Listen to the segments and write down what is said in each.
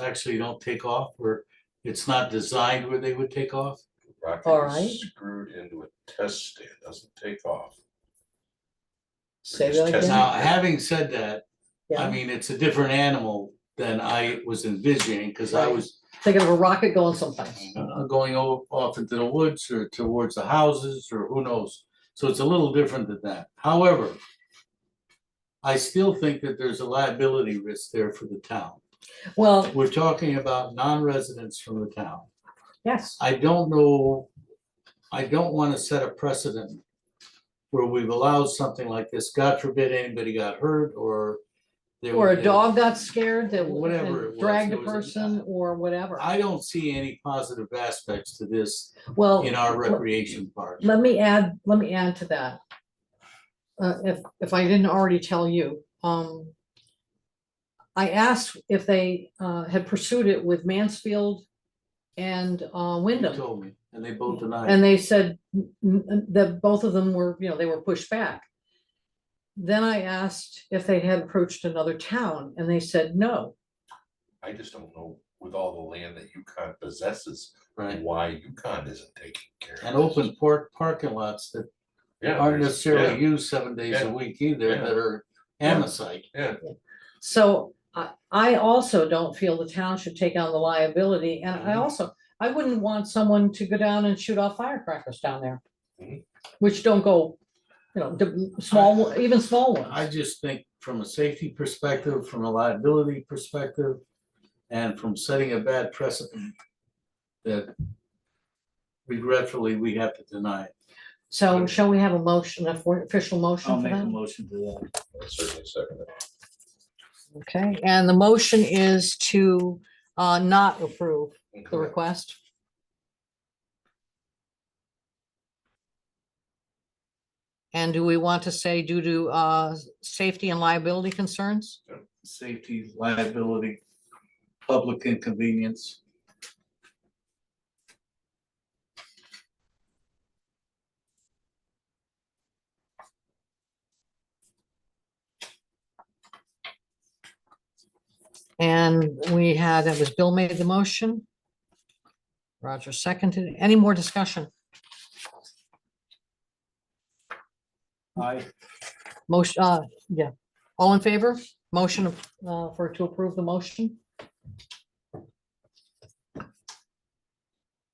actually don't take off or it's not designed where they would take off? All Rocket right. is screwed into a test stand, doesn't take off. Say just that test again. Now, having said that, I Mm-hmm. Yeah. mean, it's a different animal than I was envisioning, cause I Right. was Thinking of a rocket going someplace. uh, going o- off into the woods or towards the houses or who knows. So it's a little different than that. However, I still think that there's a liability risk there for the town. Well, We're talking about non-residents from the town. yes, I don't know, I don't wanna set a precedent where we've allowed something like this, God forbid anybody got hurt or. they or were- a dog got scared that Whatever it and was, dragged a it was a- person or whatever. I don't see any positive aspects to this Well, in our recreation park. let me add, let me add to that. Uh, if, if I didn't already tell you, um. I asked if they, uh, had pursued it with Mansfield and, uh, You Wyndham. told me, and they both denied. it. And they said n- n- that both of them were, you know, they were pushed back. Then I asked if they had approached another town and they said no. I just don't know with all the land that UConn possesses, Right, why UConn isn't taking care of this. and open port parking lots that Yeah, aren't there's- necessarily used seven days a yeah, week either, yeah. that are Yeah. amosite. So I, I also don't feel the town should take on the liability and I Mm-hmm. Mhm. also, I wouldn't want someone to go down and shoot off firecrackers down there. Mm-hmm. Mhm. Which don't go, you know, the small, one- even small I ones. just think from a safety perspective, from a liability perspective, and from setting a bad precedent, that regretfully, we have to deny it. So shall we have a motion, a for- official motion I'll for make a that? motion to that. yeah, Certainly second. it. Okay, and the motion is to, uh, not approve. the Mhm. request? And do we want to say due to uh s- safety and liability concerns? Safety, liability, public inconvenience. And we had, that was Bill made the motion. Roger seconded. Any more discussion? I, Motion, uh, yeah. All in favor? Motion uh for to approve the motion?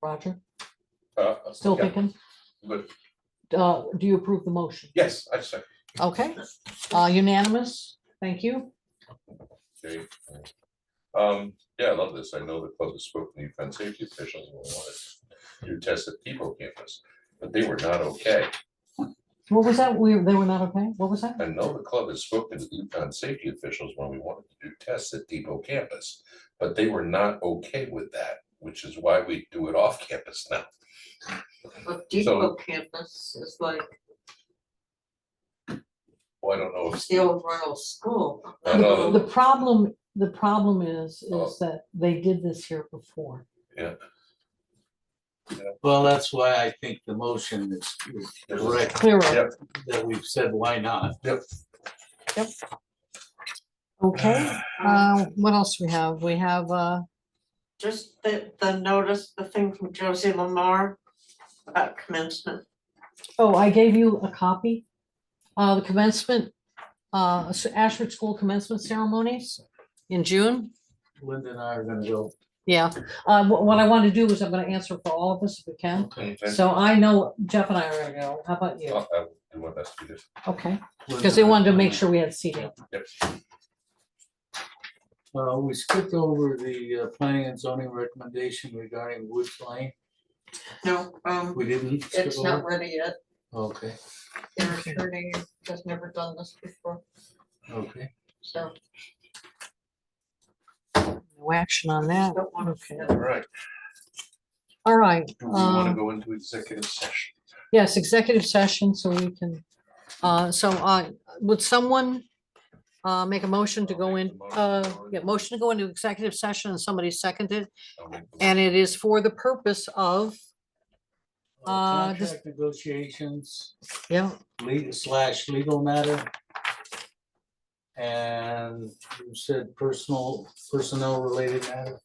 Roger, Uh, still yeah, thinking? But, Uh, do you approve the motion? yes, I second. Okay, uh, unanimous, thank you. Okay. Um, yeah, I love this. I know the club has spoken to UConn safety officials and wanted to do tests at Depot campus, but they were not okay. What was that? We, they were not okay? What was that? I know the club has spoken to Yukon safety officials when we wanted to do tests at Depot campus, but they were not okay with that, which is why we do it off campus now. But Depot campus is like Well, I don't know if, the old rural school. I know. The problem, the problem is, Oh. is that they did this here before. Well, that's why I think the motion is is correct, Clearer, Yep. that we've said, why not? okay? Uh, what else we have? We have, uh, Just the, the notice, the thing from Josie Lamar about commencement. oh, I gave you a copy. Uh, the commencement, uh, s- Ashford School commencement ceremonies in June. Linda and I are gonna go, Yeah, uh, wh- what I want to do is I'm gonna answer for all of us if we can. okay, So I know Jeff and I are gonna go. How about you? I'll- I'll do my best to do this. Okay. Linda Because they and I wanted to are make gonna- sure we had seating. Yep. Uh, we skipped over the uh, planning and zoning recommendation regarding Woods Lane, No, um, we didn't skip it's not over? ready yet. Okay, Their attorney has never done this before, okay. so No action on that. don't want Okay. to. All right, All right. do we want uh, to go into executive session? Yes, executive session, so we can, uh, so uh, would someone uh, make a motion to I'll go make in, the motion. uh, yeah, motion to go into executive session and somebody seconded, I'll make the- and it is for the purpose of, Uh, Uh, this- Contract negotiations, yeah, legal slash legal matter, and you said personal, personnel related matter?